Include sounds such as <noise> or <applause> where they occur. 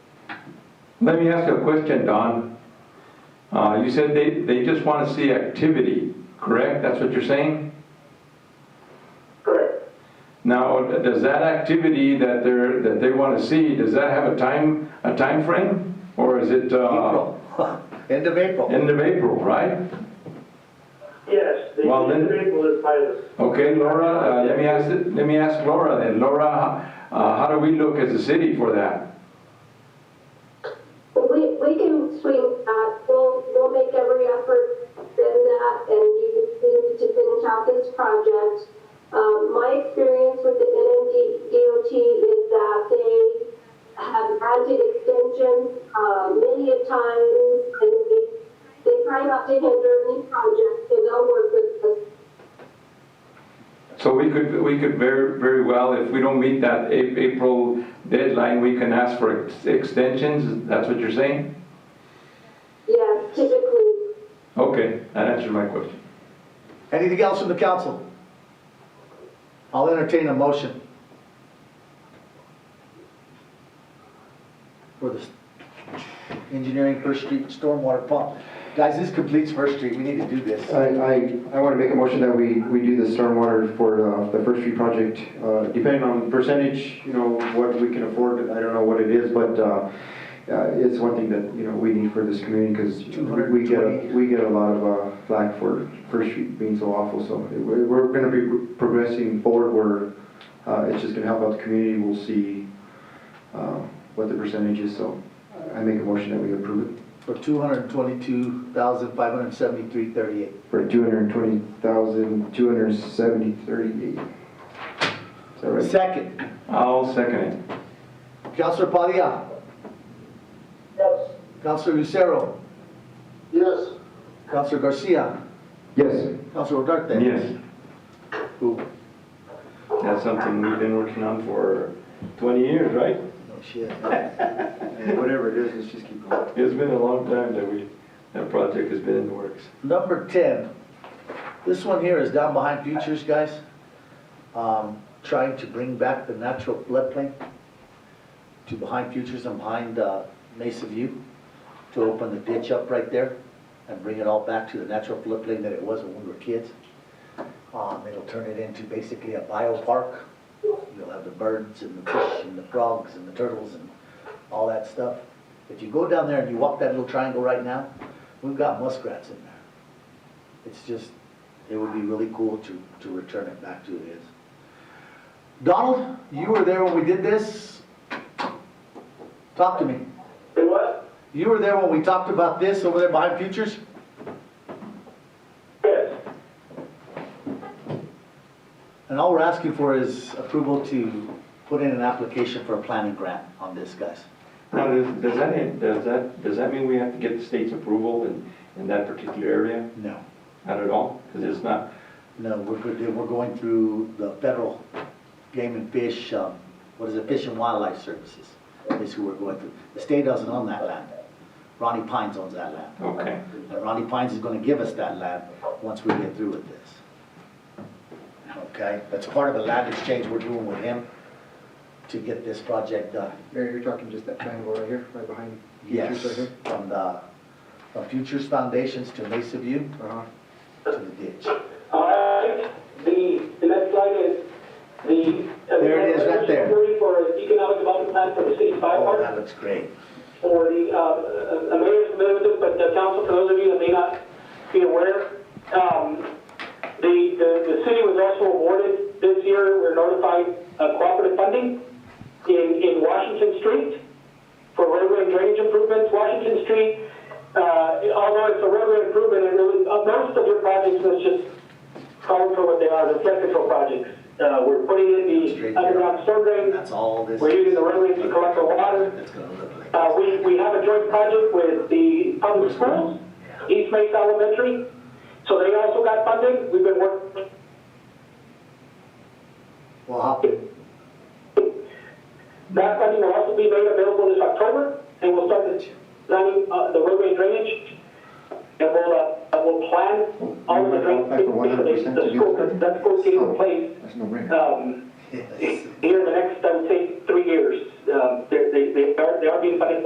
Let me ask you a question, Don. Uh, You said they, they just want to see activity, correct? That's what you're saying? Correct. Now, does that activity that they're, that they want to see, does that have a time, a time frame, Or is it uh, April, <laughs> end of April. end of April, right? Yes, the Well, then- individual is pilot. Okay, Laura, uh, let me ask, let me ask Laura then. Laura, uh, how do we look as a city for that? We, we can swing, uh, we'll, we'll make every effort in that, and you we need to finish out this project. Um, my experience with the NMD DOT is that they have granted extensions, uh, many a times, and they, they try not to hinder any project, so they'll work with us. So we could, we could very, very well, if we don't meet that A- April deadline, we can ask for ex- extensions, that's what you're saying? Yes, typically, Okay, that answered my question. Anything else from the council? I'll entertain a motion. For the engineering First Street stormwater pump. Guys, this completes First Street, we need to do this. I, I, I want to make a motion that we, we do the stormwater for uh, the First Street project, uh, depending on percentage, you know, what we can afford, I don't know what it is, but uh, uh, it's one thing that, you know, we need for this community, because we get, a- 220. we get a lot of uh, flack for First Street being so awful, so we're, we're going to be progressing forward, where uh, it's just going to help out the community, we'll see uh, what the percentage is, so I make a motion that we approve it For two hundred and twenty-two thousand, five hundred and seventy-three, thirty-eight. for two hundred and twenty thousand, two hundred and seventy, thirty-eight. Is that right? Second, I'll second it. Councilor Padilla, Yes. Councilor Lucero, Yes. Councilor Garcia, Yes. Councilor Duarte. Yes, Ooh, no that's something we've been working on for 20 years, right? shit. Whatever it is, let's just keep going. It's been a long time that we, that project has been in the works. Number 10, this one here is down behind Futures, guys. Um, Trying to bring back the natural floodplain to behind Futures and behind uh, Mesa View, to open the ditch up right there and bring it all back to the natural floodplain that it was when we were kids. Um, It'll turn it into basically a biopark. You'll have the birds and the fish and the frogs and the turtles and all that stuff. If you go down there and you walk that little triangle right now, we've got muskrats in there. It's just, it would be really cool to, to return it back to it is. Donald, you were there when we did this. Talk to me. Do what? You were there when we talked about this over there behind Futures? Yes. And all we're asking for is approval to put in an application for a planning grant on this, guys. Now, does does that, does that, does that mean we have to get the state's approval in, in that particular area? No, Not at all? Because it's not, no, we're, good- we're going through the federal game and fish, um, what is it, Fish and Wildlife Services is who we're going through. The state doesn't own that land. Ronnie Pines owns that land. okay. And Ronnie Pines is gonna give us that land once we get through with this. Okay, that's part of the land exchange we're doing with him to get this project done. Mayor, you're talking just that triangle right here, right behind. Yes, from the, from Futures Foundations to Mesa View Uh-huh. to the ditch. All right, the, the next slide is the. There it is, right there. Security For economic development plan for the city fire Oh, department. that looks great. for the, uh, uh, mayor's amendment, but the council, for those of you that may not be aware, um, the, the, the city was also awarded this year, we're notified, uh, cooperative funding in, in Washington Street for roadway and drainage improvements. Washington Street, uh, although it's a roadway improvement, it really, uh, most of your projects, let's just call them for what they are, the flood control projects. Uh, we're putting in Street, the yeah. underground storm drain, That's all this. We're using the roadways to collect the water. That's gonna look like. uh, we, we have a joint project with the public schools, East Mesa Elementary, so they also got funding. We've been working, Well, hop in. that funding will also be made available this October, and we'll start the, planning, uh, the roadway drainage, and we'll, uh, and we'll plan all of the We're gonna qualify for drainage. 100% to The do school, that? that school team in place, That's no Oh, brainer. um, Yes.